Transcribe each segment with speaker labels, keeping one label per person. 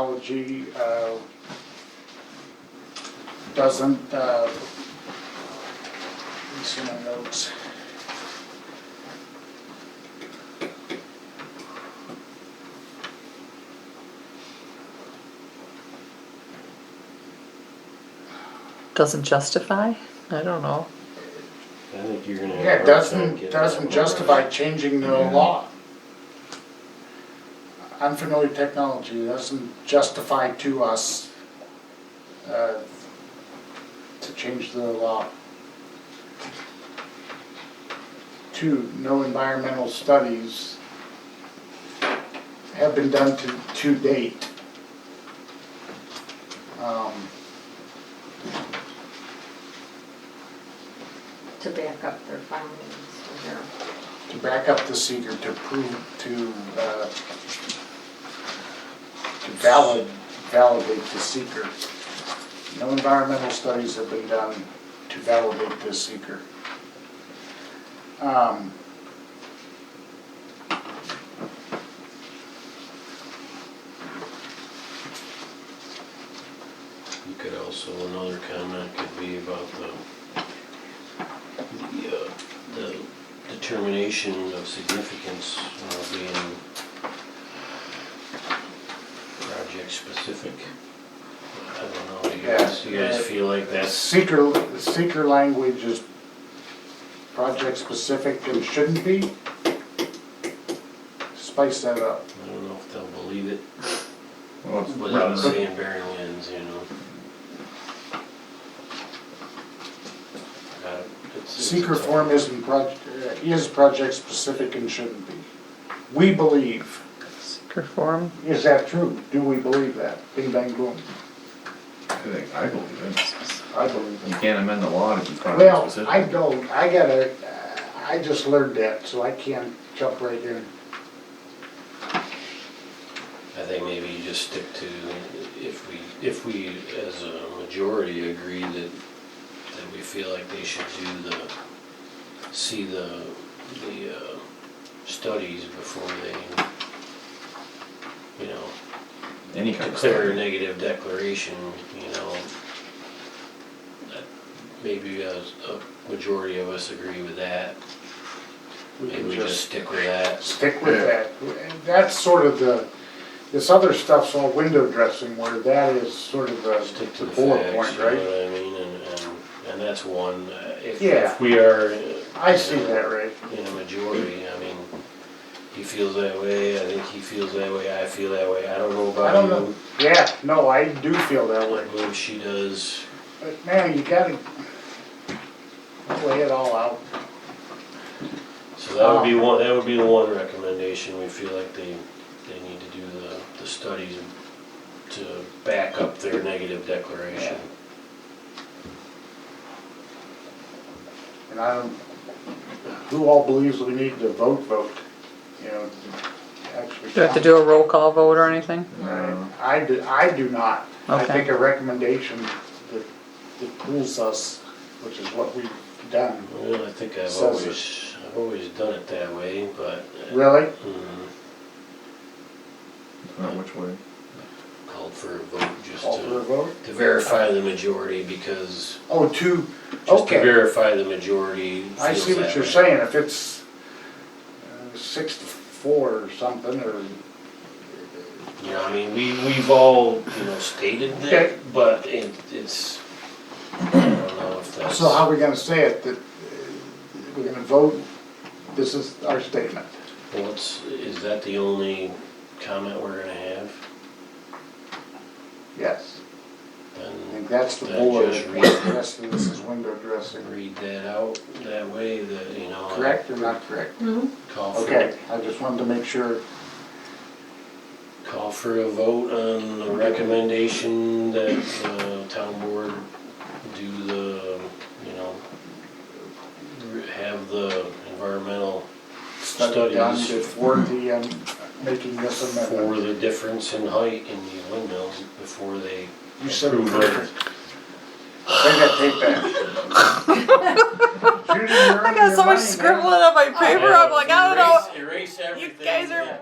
Speaker 1: technology uh, doesn't, uh, these are my notes.
Speaker 2: Doesn't justify? I don't know.
Speaker 3: I think you're gonna. have a
Speaker 1: Yeah,
Speaker 3: hard
Speaker 1: it
Speaker 3: time getting
Speaker 1: doesn't,
Speaker 3: that
Speaker 1: doesn't
Speaker 3: one.
Speaker 1: justify changing the law. Unfamiliar technology doesn't justify to us uh, to change the law. Two, no environmental studies have been done to, to date. Um,
Speaker 4: to back up their findings or their
Speaker 1: to back up the seeker to prove, to, uh, to valid, validate the seeker. No environmental studies have been done to validate the seeker. Um,
Speaker 3: You could also, another comment could be about the, the, uh, the determination of significance uh, being project specific. I don't know, do you guys, you guys
Speaker 1: Yeah.
Speaker 3: feel like that's,
Speaker 1: Seeker, the seeker language is project-specific and shouldn't be. Spice that up.
Speaker 3: I don't know if they'll believe it,
Speaker 5: Well, it's
Speaker 3: without
Speaker 5: rather-
Speaker 3: saying Barrylands, you know? Uh, it's- it's-
Speaker 1: Seeker form isn't proj, uh, is project-specific and shouldn't be. We believe.
Speaker 2: Seeker form,
Speaker 1: Is that true? Do we believe that? Bing bang boom.
Speaker 5: I think I believe it.
Speaker 1: I believe
Speaker 5: You
Speaker 1: it.
Speaker 5: can't amend the law if it's project
Speaker 1: Well,
Speaker 5: specific.
Speaker 1: I don't, I gotta, I just learned that, so I can't jump right in.
Speaker 3: I think maybe you just stick to, if we, if we as a majority agree that, that we feel like they should do the, see the, the, uh, studies before they, you know,
Speaker 5: Any kind of.
Speaker 3: declare a
Speaker 5: study.
Speaker 3: negative declaration, you know. that Maybe as a majority of us agree with that,
Speaker 1: We
Speaker 3: maybe
Speaker 1: can
Speaker 3: we just
Speaker 1: just
Speaker 3: stick with that.
Speaker 1: stick with that. And That's sort of the, this other stuff's all window dressing where that is sort of the
Speaker 3: Stick to
Speaker 1: the
Speaker 3: the
Speaker 1: bullet
Speaker 3: facts,
Speaker 1: point,
Speaker 3: you know
Speaker 1: right?
Speaker 3: what I mean, and, and, and that's one, uh, if,
Speaker 1: Yeah.
Speaker 3: if we are. uh,
Speaker 1: I
Speaker 3: you
Speaker 1: see
Speaker 3: know,
Speaker 1: that, Ray.
Speaker 3: In a majority, I mean, he feels that way, I think he feels that way, I feel that way, I don't know
Speaker 1: I don't
Speaker 3: about
Speaker 1: know.
Speaker 3: you.
Speaker 1: Yeah, no, I do feel
Speaker 3: I
Speaker 1: that way.
Speaker 3: believe she does,
Speaker 1: But man, you gotta lay it all out.
Speaker 3: so that would be
Speaker 1: Um,
Speaker 3: one, that would be the one recommendation, we feel like they, they need to do the, the studies to back up their negative declaration.
Speaker 1: And I don't, who all believes we need to vote, vote, you know, actually.
Speaker 2: do you have to do a roll call vote or anything?
Speaker 1: Right. I do, I do not. I
Speaker 2: Okay.
Speaker 1: think a recommendation that, that pulls us, which is what we've done.
Speaker 3: Well, I think I've
Speaker 1: Says it.
Speaker 3: always, I've always done it that way, but.
Speaker 1: Really?
Speaker 3: Mm,
Speaker 5: Not which way.
Speaker 3: Called for a vote just
Speaker 1: All for a
Speaker 3: to,
Speaker 1: vote?
Speaker 3: to verify the majority because
Speaker 1: Oh, two,
Speaker 3: Just to
Speaker 1: okay.
Speaker 3: verify the majority.
Speaker 1: I
Speaker 3: feels
Speaker 1: see what
Speaker 3: that
Speaker 1: you're
Speaker 3: way.
Speaker 1: saying. If it's uh, six to four or something, or,
Speaker 3: You know, I mean, we, we've all, you know, stated
Speaker 1: Okay.
Speaker 3: that, but it, it's, I don't know if that's.
Speaker 1: so how are we gonna say it? That uh, we're gonna vote, this is our statement.
Speaker 3: What's, is that the only comment we're gonna have?
Speaker 1: Yes. I
Speaker 3: Then
Speaker 1: think that's the
Speaker 3: Then
Speaker 1: bullet,
Speaker 3: just
Speaker 1: point.
Speaker 3: read it.
Speaker 1: the rest of this is window dressing.
Speaker 3: read that out that way, that, you know.
Speaker 1: Correct or not correct?
Speaker 3: Call for,
Speaker 1: Okay, I just wanted to make sure.
Speaker 3: call for a vote on the recommendation that, uh, town board do the, you know, have the environmental
Speaker 1: study done
Speaker 3: Studies.
Speaker 1: before the, um, making this
Speaker 3: for
Speaker 1: amendment.
Speaker 3: the difference in height in the windmills before they
Speaker 1: You said
Speaker 3: approve
Speaker 1: perfect.
Speaker 3: it.
Speaker 1: Take that tape back. Judy, you're
Speaker 2: I
Speaker 1: on
Speaker 2: got
Speaker 1: your
Speaker 2: so much
Speaker 1: money,
Speaker 2: scribbling
Speaker 1: man. Oh,
Speaker 2: on my paper, I'm like, I don't know,
Speaker 3: Erase
Speaker 2: you guys are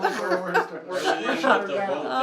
Speaker 1: We're- we're- we're-
Speaker 3: We're leaving with the vote.